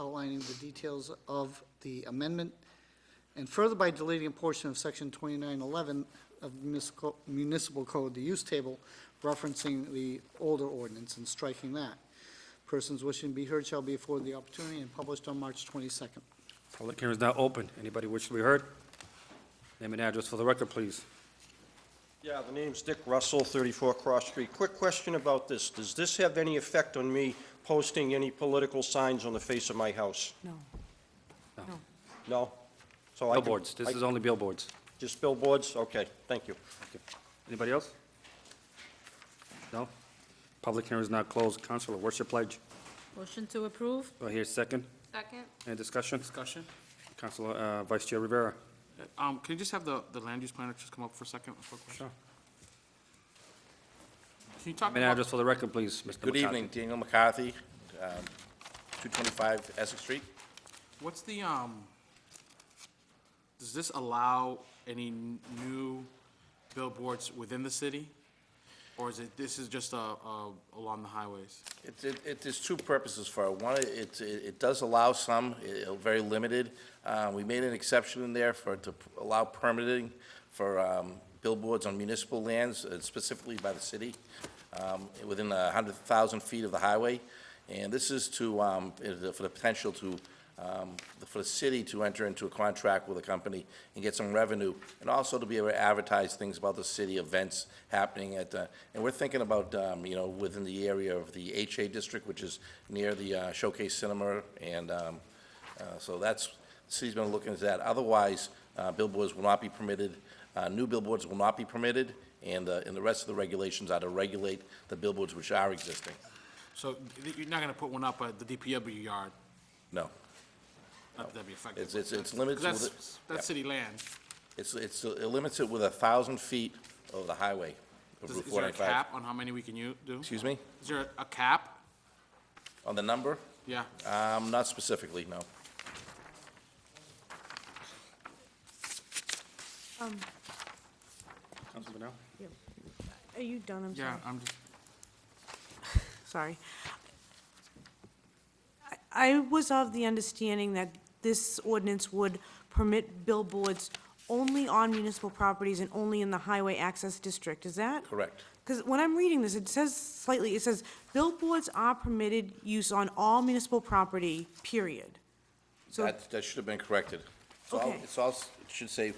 outlining the details of the amendment, and further by deleting a portion of section 2911 of municipal- municipal code, the use table, referencing the older ordinance and striking that. Persons wishing to be heard shall be afforded the opportunity and published on March 22nd. Public hearing is now open. Anybody wish to be heard? Name and address for the record, please. Yeah, the name's Dick Russell, 34 Cross Street. Quick question about this. Does this have any effect on me posting any political signs on the face of my house? No. No? So I can- Billboards, this I- is only billboards. Just billboards? Okay, thank you. Anybody else? No? Public hearing is now closed. Counselor, what's your pledge? Motion to approve? Do I hear a second? Second. Any discussion? Discussion. Counselor, uh, Vice Chair Rivera. Um, can you just have the, the land use planner just come up for a second? for a question? Can you talk Name and about, address for the record, please, Mr. Good McCarthy. evening, Daniel McCarthy, um, 225 Essex Street. what's the, um, does this allow any n- new billboards within the city? Or is it, this is just, uh, uh, along the highways? It- It, it, there's two purposes for it. One, it, it it does allow some, i- i- very limited. Uh, We made an exception in there for, to p- allow permitting for um, billboards on municipal lands, uh, specifically by the city, um, within 100,000 feet of the highway. And this is to, um, i- for the potential to, um, for the city to enter into a contract with a company and get some revenue, and also to be able to advertise things about the city, events happening at, uh, and we're thinking about, um, you know, within the area of the HA district, which is near the uh, Showcase Cinema, and um, uh, so that's, the city's been looking at that. Otherwise, uh, billboards will not be permitted, uh, new billboards will not be permitted, and, uh, and the rest of the regulations are to regulate the billboards which are existing. So th- you're not gonna put one up at the DPW yard, No, not that that'd be effective. It's- it's- it's limited to 'Cause that's, the- that's city land. it's, it's, it limits it with a 1,000 feet of the highway. of Does- Route Is there a 495. cap on how many we can u- do? Excuse me? Is there a cap? On the number? Yeah. Um, Not specifically, no. Counselor Brunel? Are you done? I'm Yeah, sorry. I'm just, Sorry. I I was of the understanding that this ordinance would permit billboards only on municipal properties and only in the highway access district. Is that? Correct. Because when I'm reading this, it says slightly, it says billboards are permitted use on all municipal property, period. So- That, that should have been corrected. It's all- Okay. It's all, s- it should say,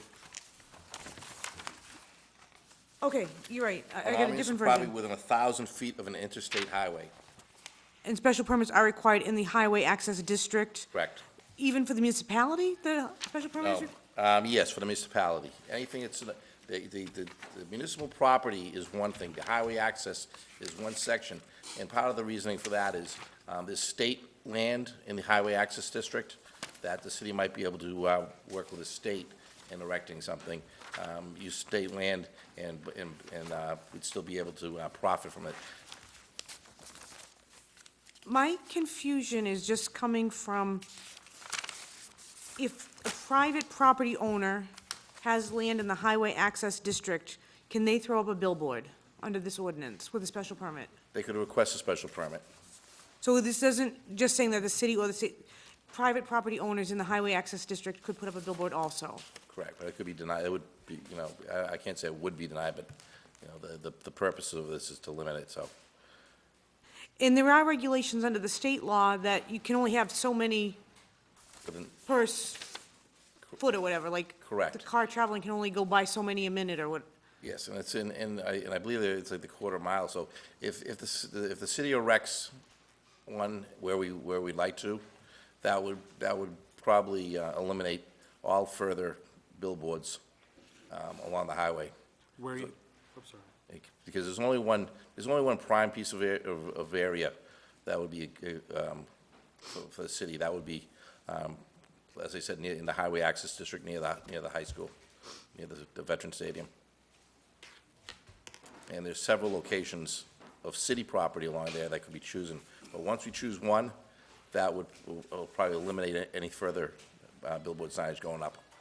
Okay, you're right. I I got a allowing different probably version. within a 1,000 feet of an interstate highway. And special permits are required in the highway access district, Correct. even for the municipality, the special permit is No. required? Um, Yes, for the municipality. Anything that's, in the- the the the municipal property is one thing, the highway access is one section, and part of the reasoning for that is um, there's state land in the highway access district that the city might be able to uh, work with the state in erecting something, um, use state land, and and and, uh, we'd still be able to uh, profit from it. My confusion is just coming from if a private property owner has land in the highway access district, can they throw up a billboard under this ordinance with a special permit? They could request a special permit. So this doesn't, just saying that the city or the ci- private property owners in the highway access district could put up a billboard also. Correct, but it could be denied, it would be, you know, I, I can't say it would be denied, but, you know, the, the, the purpose of this is to limit it, so. And there are regulations under the state law that you can only have so many but then- per s- foot or whatever, like. Correct. The car traveling can only go by so many a minute or what, Yes, and it's in, and I, and I believe that it's like the quarter mile, so if, if the, c- if the city erects one where we, where we'd like to, that would, that would probably uh, eliminate all further billboards, um, along the highway. where you, I'm sorry. Because there's only one, there's only one prime piece of, a- of of area that would be, uh, um, for for the city, that would be, um, as I said, near, in the highway access district, near the, near the high school, near the the veteran stadium. And there's several locations of city property along there that could be chosen. But once we choose one, that would, will will probably eliminate any further uh, billboard signage going up.